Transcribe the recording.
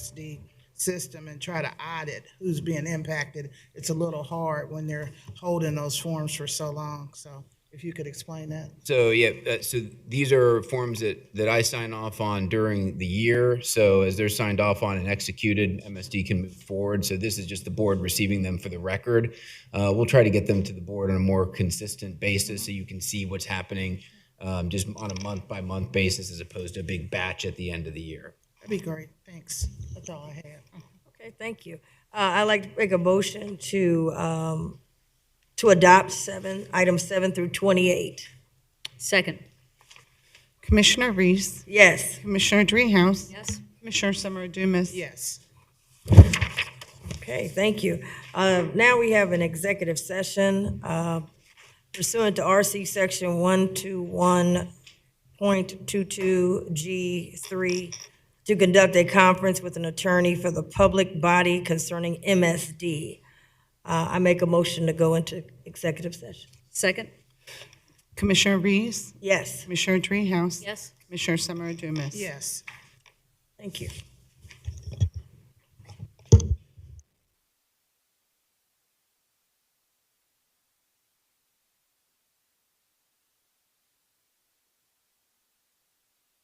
PSD system and try to audit who's being impacted, it's a little hard when they're holding those forms for so long. So if you could explain that. So yeah, uh, so these are forms that, that I sign off on during the year. So as they're signed off on and executed, MSD can move forward. So this is just the board receiving them for the record. Uh, we'll try to get them to the board on a more consistent basis so you can see what's happening um, just on a month by month basis as opposed to a big batch at the end of the year. That'd be great. Thanks. That's all I have. Okay, thank you. Uh, I'd like to make a motion to, um, to adopt seven, items seven through 28. Second. Commissioner Reese. Yes, Commissioner Dreehouse. Yes. Commissioner Summer Dumas. Yes. okay, thank you. Uh, Now we have an executive session uh, pursuant to RC Section 121.22G3 to conduct a conference with an attorney for the public body concerning MSD. Uh, I make a motion to go into executive session. Second. Commissioner Reese. Yes, Commissioner Dreehouse. Yes. Commissioner Summer Dumas. Yes. thank you.